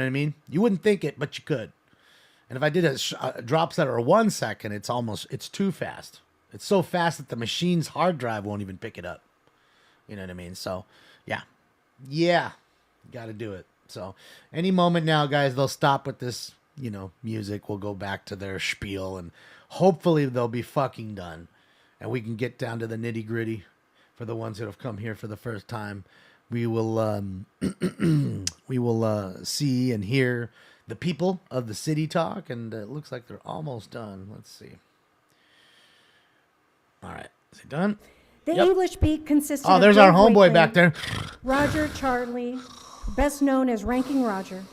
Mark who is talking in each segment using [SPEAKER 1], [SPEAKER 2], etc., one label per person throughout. [SPEAKER 1] know what I mean? You wouldn't think it, but you could. And if I did a, sh- a drops that are one second, it's almost it's too fast. It's so fast that the machine's hard drive won't even pick it up. You know what I mean? So, yeah, yeah, got to do it. So, any moment now, guys, they'll stop with this. You know, music. We'll go back to their spiel, and hopefully they'll be fucking done, and we can get down to the nitty gritty. For the ones that have come here for the first time, we will um, we will uh, see and hear the people of the city talk, and uh, it looks like they're almost done. Let's see. All right, is it done?
[SPEAKER 2] The
[SPEAKER 1] Yep.
[SPEAKER 2] English beat consisted
[SPEAKER 1] Oh,
[SPEAKER 2] of
[SPEAKER 1] there's our
[SPEAKER 2] Jake
[SPEAKER 1] homeboy
[SPEAKER 2] Wakeley,
[SPEAKER 1] back there.
[SPEAKER 2] Roger Charlie, best known as Ranking Roger,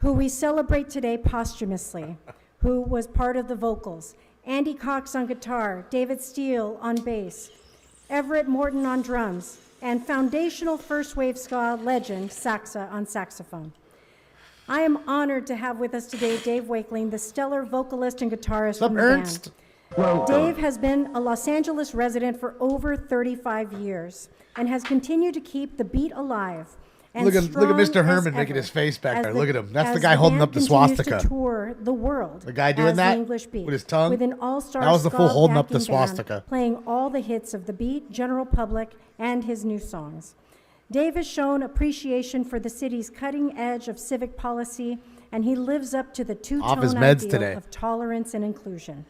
[SPEAKER 2] who we celebrate today posthumously, who was part of the vocals, Andy Cox on guitar, David Steele on bass, Everett Morton on drums, and foundational first wave ska legend Saxa on saxophone. I am honored to have with us today Dave Wakeling, the stellar vocalist and guitarist
[SPEAKER 1] What's up,
[SPEAKER 2] from the band.
[SPEAKER 1] Ernst?
[SPEAKER 2] Dave has been a Los Angeles resident for over 35 years and has continued to keep the beat alive. and
[SPEAKER 1] Look at- look at Mr.
[SPEAKER 2] strong as
[SPEAKER 1] Herman making
[SPEAKER 2] ever
[SPEAKER 1] his face back
[SPEAKER 2] as
[SPEAKER 1] there. Look at him. That's the
[SPEAKER 2] as
[SPEAKER 1] guy holding
[SPEAKER 2] band
[SPEAKER 1] up the
[SPEAKER 2] continues to
[SPEAKER 1] swastika.
[SPEAKER 2] tour the world. The
[SPEAKER 1] guy doing that
[SPEAKER 2] English beat
[SPEAKER 1] with his tongue?
[SPEAKER 2] With an all-star
[SPEAKER 1] That was the
[SPEAKER 2] ska
[SPEAKER 1] fool holding up the
[SPEAKER 2] backing band
[SPEAKER 1] swastika.
[SPEAKER 2] playing all the hits of the beat, general public, and his new songs. Dave has shown appreciation for the city's cutting edge of civic policy, and he lives up to the two-tone
[SPEAKER 1] Off his meds
[SPEAKER 2] ideal
[SPEAKER 1] today.
[SPEAKER 2] of tolerance and inclusion.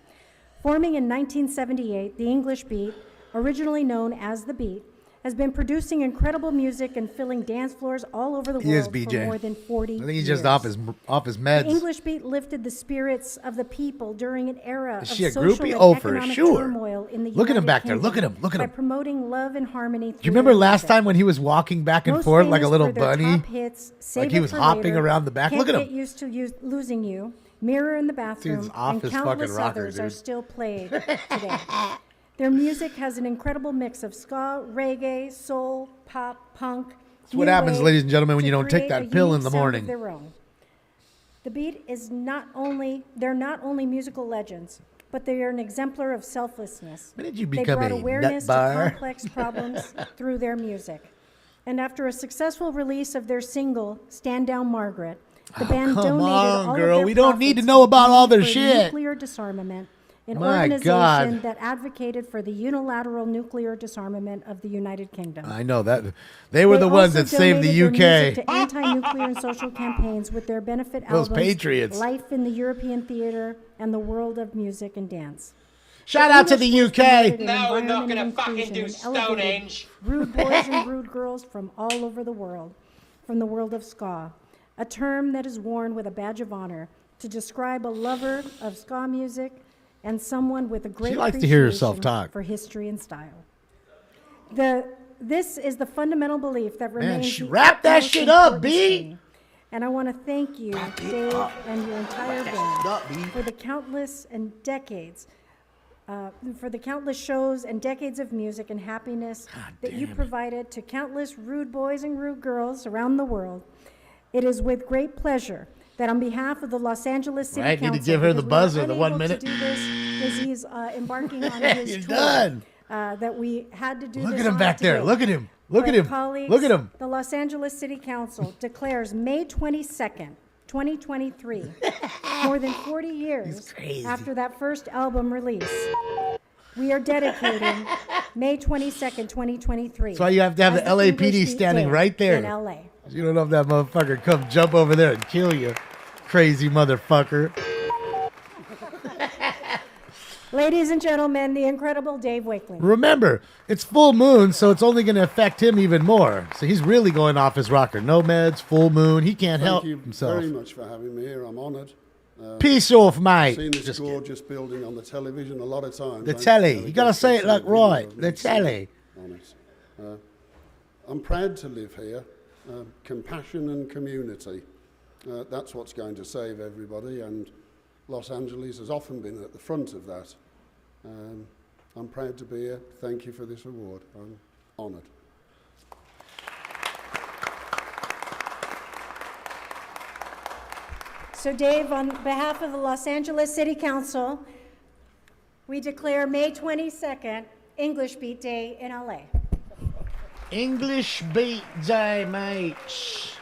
[SPEAKER 2] Forming in 1978, the English Beat, originally known as the Beat, has been producing incredible music and filling dance floors all over the
[SPEAKER 1] He is
[SPEAKER 2] world
[SPEAKER 1] BJ.
[SPEAKER 2] for more than 40
[SPEAKER 1] I
[SPEAKER 2] years.
[SPEAKER 1] think he's just off his off his meds.
[SPEAKER 2] The English Beat lifted the spirits of the people during an era
[SPEAKER 1] Is
[SPEAKER 2] of
[SPEAKER 1] she a
[SPEAKER 2] social
[SPEAKER 1] groupie?
[SPEAKER 2] and
[SPEAKER 1] Oh, for
[SPEAKER 2] economic
[SPEAKER 1] sure.
[SPEAKER 2] turmoil in the
[SPEAKER 1] Look at him
[SPEAKER 2] United
[SPEAKER 1] back there. Look at
[SPEAKER 2] Kingdom
[SPEAKER 1] him. Look at
[SPEAKER 2] by
[SPEAKER 1] him.
[SPEAKER 2] promoting love and harmony.
[SPEAKER 1] Do you remember last time when he was walking back and
[SPEAKER 2] Most
[SPEAKER 1] forth like a
[SPEAKER 2] famous
[SPEAKER 1] little
[SPEAKER 2] for their
[SPEAKER 1] bunny?
[SPEAKER 2] top hits, Save
[SPEAKER 1] he
[SPEAKER 2] It
[SPEAKER 1] was
[SPEAKER 2] for
[SPEAKER 1] hopping
[SPEAKER 2] Later,
[SPEAKER 1] around the back.
[SPEAKER 2] Can't
[SPEAKER 1] Look at
[SPEAKER 2] get
[SPEAKER 1] him.
[SPEAKER 2] used to Use, losing you. Mirror in the bathroom.
[SPEAKER 1] off
[SPEAKER 2] and
[SPEAKER 1] his fucking
[SPEAKER 2] countless
[SPEAKER 1] rocker,
[SPEAKER 2] others are
[SPEAKER 1] dude.
[SPEAKER 2] still played today. Their music has an incredible mix of ska, reggae, soul, pop, punk. That's
[SPEAKER 1] what happens, ladies and gentlemen, when you don't take that pill in the morning.
[SPEAKER 2] Their own. The Beat is not only they're not only musical legends, but they are an exemplar of selflessness.
[SPEAKER 1] When did you
[SPEAKER 2] they
[SPEAKER 1] become
[SPEAKER 2] brought
[SPEAKER 1] a
[SPEAKER 2] awareness
[SPEAKER 1] nutbar?
[SPEAKER 2] to complex problems through their music. And after a successful release of their single "Stand Down, Margaret," the band
[SPEAKER 1] Oh, come on,
[SPEAKER 2] donated all
[SPEAKER 1] girl.
[SPEAKER 2] of their
[SPEAKER 1] We don't need to
[SPEAKER 2] profits
[SPEAKER 1] know about all their
[SPEAKER 2] for
[SPEAKER 1] shit.
[SPEAKER 2] Nuclear disarmament, an
[SPEAKER 1] My
[SPEAKER 2] organization
[SPEAKER 1] God.
[SPEAKER 2] that advocated for the unilateral nuclear disarmament of the United Kingdom.
[SPEAKER 1] I know that they were
[SPEAKER 2] They
[SPEAKER 1] the ones
[SPEAKER 2] also
[SPEAKER 1] that saved the
[SPEAKER 2] donated their music
[SPEAKER 1] UK.
[SPEAKER 2] to anti-nuclear and social campaigns with their benefit
[SPEAKER 1] Those
[SPEAKER 2] albums,
[SPEAKER 1] patriots.
[SPEAKER 2] Life in the European Theater and the World of Music and Dance.
[SPEAKER 1] Shout out to
[SPEAKER 2] English
[SPEAKER 1] the
[SPEAKER 2] was
[SPEAKER 1] UK.
[SPEAKER 2] founded in
[SPEAKER 3] No, we're not
[SPEAKER 2] environment
[SPEAKER 3] gonna
[SPEAKER 2] and
[SPEAKER 3] fucking
[SPEAKER 2] inclusion
[SPEAKER 3] do
[SPEAKER 2] and
[SPEAKER 3] Stone
[SPEAKER 2] elevated
[SPEAKER 3] Age.
[SPEAKER 2] Rude boys and rude girls from all over the world, from the world of ska, a term that is worn with a badge of honor to describe a lover of ska music and someone with a great
[SPEAKER 1] likes to hear herself
[SPEAKER 2] appreciation
[SPEAKER 1] talk.
[SPEAKER 2] for history and style. The this is the fundamental belief that remains.
[SPEAKER 1] sh-
[SPEAKER 2] the
[SPEAKER 1] wrap that
[SPEAKER 2] utmost
[SPEAKER 1] shit up,
[SPEAKER 2] importance
[SPEAKER 1] B.
[SPEAKER 2] to me. And I want to thank you, Dave, and your entire band
[SPEAKER 1] up, B.
[SPEAKER 2] for the countless and decades, uh, for the countless shows and decades of music and happiness that you
[SPEAKER 1] damn it.
[SPEAKER 2] provided to countless rude boys and rude girls around the world. It is with great pleasure that on behalf of the Los Angeles City
[SPEAKER 1] Right, need to
[SPEAKER 2] Council,
[SPEAKER 1] give her the
[SPEAKER 2] because we
[SPEAKER 1] buzzer, the
[SPEAKER 2] were unable
[SPEAKER 1] one
[SPEAKER 2] to
[SPEAKER 1] minute.
[SPEAKER 2] do this because he's uh, embarking on his
[SPEAKER 1] You're
[SPEAKER 2] tour,
[SPEAKER 1] done.
[SPEAKER 2] uh, that we had to do.
[SPEAKER 1] Look
[SPEAKER 2] this
[SPEAKER 1] at him
[SPEAKER 2] on
[SPEAKER 1] back there.
[SPEAKER 2] today.
[SPEAKER 1] Look at him. Look
[SPEAKER 2] But
[SPEAKER 1] at him.
[SPEAKER 2] colleagues,
[SPEAKER 1] Look at him.
[SPEAKER 2] The Los Angeles City Council declares May 22nd, 2023, more than 40 years
[SPEAKER 1] crazy.
[SPEAKER 2] after that first album release. We are dedicating May 22nd, 2023.
[SPEAKER 1] That's why you have to have
[SPEAKER 2] as
[SPEAKER 1] the LAPD
[SPEAKER 2] English Beat
[SPEAKER 1] standing
[SPEAKER 2] Day
[SPEAKER 1] right there.
[SPEAKER 2] In LA.
[SPEAKER 1] You don't know if that motherfucker come jump over there and kill you, crazy motherfucker.
[SPEAKER 2] Ladies and gentlemen, the incredible Dave Wakeling.
[SPEAKER 1] Remember, it's full moon, so it's only going to affect him even more. So he's really going off his rocker. No meds, full moon. He can't help
[SPEAKER 4] Thank you
[SPEAKER 1] himself.
[SPEAKER 4] very much for having me here. I'm honoured.
[SPEAKER 1] Peace off,
[SPEAKER 4] I've
[SPEAKER 1] mate.
[SPEAKER 4] seen this
[SPEAKER 1] Just kidding.
[SPEAKER 4] gorgeous building on the television a lot of times.
[SPEAKER 1] The
[SPEAKER 4] I've
[SPEAKER 1] telly.
[SPEAKER 4] had a
[SPEAKER 1] You gotta
[SPEAKER 4] good
[SPEAKER 1] say it like
[SPEAKER 4] television
[SPEAKER 1] right.
[SPEAKER 4] of
[SPEAKER 1] The
[SPEAKER 4] me
[SPEAKER 1] telly.
[SPEAKER 4] on it. Uh, I'm proud to live here. Uh, compassion and community. Uh, that's what's going to save everybody, and Los Angeles has often been at the front of that. Um, I'm proud to be here. Thank you for this award. I'm honoured.
[SPEAKER 2] So, Dave, on behalf of the Los Angeles City Council, we declare May 22nd English Beat Day in LA.
[SPEAKER 1] English beat day, mates.